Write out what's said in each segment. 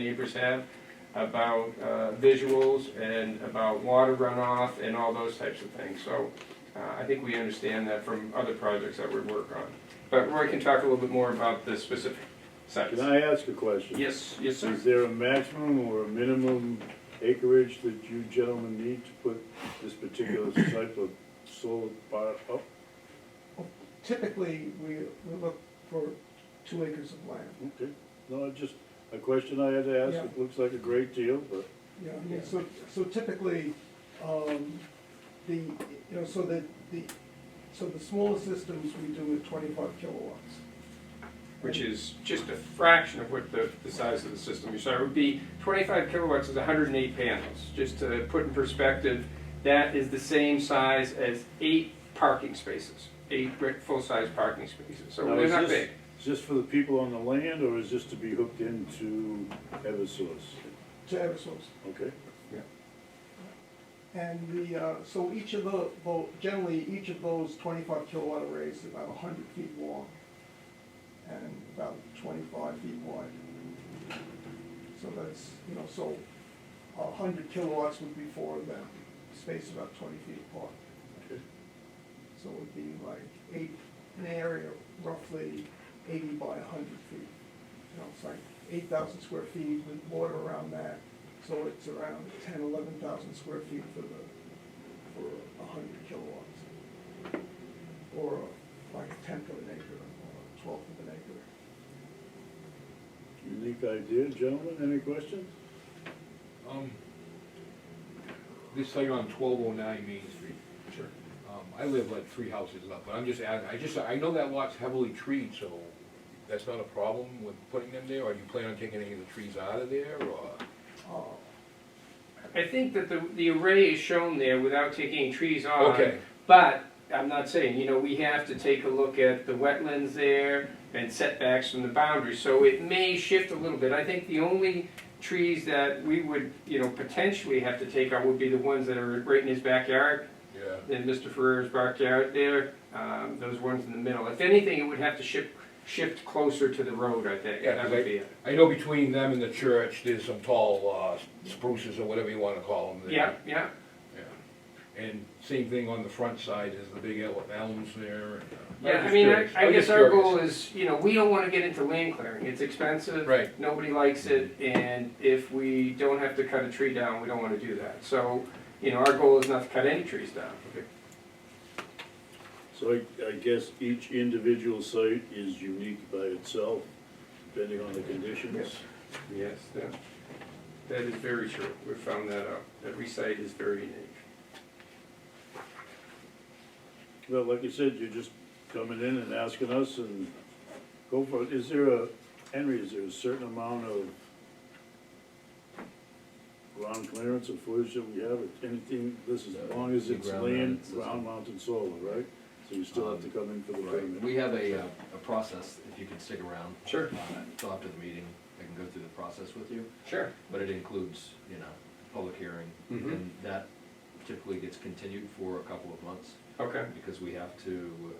neighbors have about uh, visuals and about water runoff and all those types of things. So uh, I think we understand that from other projects that we work on. But Roy can talk a little bit more about the specific sites. Can I ask a question? Yes, yes, sir. Is there a maximum or a minimum acreage that you gentlemen need to put this particular type of solar bar up? typically, we, we look for two acres of land. Okay, no, I just, a question I had to ask, Yeah. it looks like a great deal, but, Yeah, I mean, so, so typically, um, the, you know, so that the, so the smaller systems we do at twenty-five kilowatts. Which is just a fraction of what the, the size of the system. So it would be 25 kilowatts is 108 panels. Just to put in perspective, that is the same size as eight parking spaces, eight brick full-size parking spaces. So Now, they're is not this- big. is this for the people on the land, or is this to be hooked into Eversource? To Eversource. Okay, And the, uh, so each of the, tho- generally, each of those twenty-five kilowatt arrays is about hundred feet long and about twenty-five feet wide. So that's, you know, so a hundred kilowatts would be four of them, spaced about twenty feet apart. okay. So it would be like eight, an area roughly eighty by hundred feet. You know, it's like eight thousand square feet with water around that, so it's around ten, eleven thousand square feet for the, for a hundred kilowatts. Or like a tenth of an acre, or a twelfth of an acre. Unique idea, gentlemen, any questions? Um, This site on twelve oh nine Main Street. Sure. Um, I live like three houses up, but I'm just adding, I just, I know that lot's heavily treed, so that's not a problem with putting them there? Or you plan on taking any of the trees out of there, or? Uh, I think that the, the array is shown there without taking any trees off. Okay, But I'm not saying, you know, we have to take a look at the wetlands there and setbacks from the boundary. So it may shift a little bit. I think the only trees that we would, you know, potentially have to take out would be the ones that are right in his backyard, yeah, in Mr. Ferrer's backyard there, um, those ones in the middle. If anything, it would have to shift, shift closer to the road, I think. Yeah, That 'cause would I- be it. I know between them and the church, there's some tall, uh, spruces or whatever you wanna call them there. Yeah, yeah. Yeah. And same thing on the front side, there's the big el- elms there, and. uh, was Yeah, I just mean, I, curious. I was guess just our curious. goal is, you know, we don't wanna get into land clearing, it's expensive. Right. Nobody likes it, and if we don't have to cut a tree down, we don't wanna do that. So, you know, our goal is not to cut any trees down. So I, I guess each individual site is unique by itself, depending on the conditions. Yes, that, that is very true, we found that out, every site is very unique. Well, like you said, you're just coming in and asking us and go for it. Is there a, Henry, is there a certain amount of ground clearance or footage that we have or anything? This is, as long as it's Ground land, mounted system. ground mounted solar, right? So you still have to come in for the Right, permit. we have a, uh, a process, if you could stick around. Sure. uh, Till after the meeting, I can go through the process with you, Sure. but it includes, you know, public hearing. Mhm. And that typically gets continued for a couple of months, Okay, because we have to,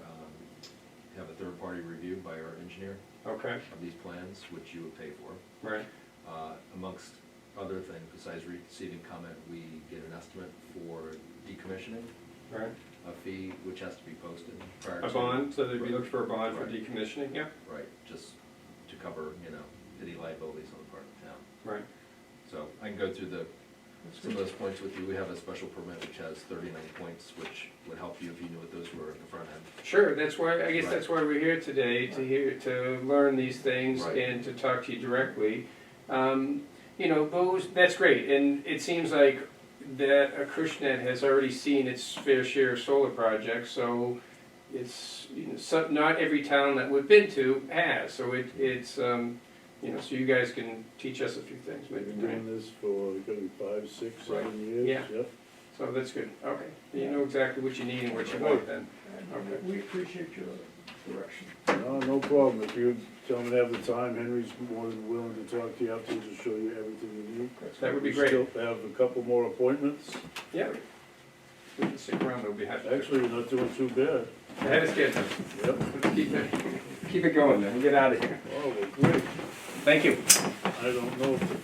um, have a third-party review by our engineer okay, of these plans, which you would pay for. right, Uh, Amongst other things, besides receiving comment, we get an estimate for decommissioning, right. a fee which has to be posted prior to. A bond, so they'd be Right. looking for a bond for Right. decommissioning, yeah, Right, just to cover, you know, any liabilities on the part of the town. right. So I can go through the, some of those points with you. We have a special permit which has thirty-nine points, which would help you if you knew what those were at the front end. Sure, that's why, I guess Right. that's why we're here today, to hear, to learn these things Right. and to talk to you directly. Um, You know, those, that's great, and it seems like that Acushnet has already seen its fair share of solar projects, so it's, you know, so- not every town that we've been to has, so it, it's, um, you know, so you guys can teach us a few things We've maybe, been right? doing this for, gonna be five, six, Right. seven years, Yeah. yep. So that's good, okay, you know exactly what you need and what you want then. Okay. And we appreciate your direction. No, no problem. If you gentlemen have the time, Henry's more than willing to talk to you afterwards to show you everything you need. That would be We great, Still have a couple more appointments. yeah. We can stick around, we'll be happy to. Actually, you're not doing too bad. That is good. Yep. Keep it, keep it going then, get out of here. Oh, well, great. Thank you. I don't know if the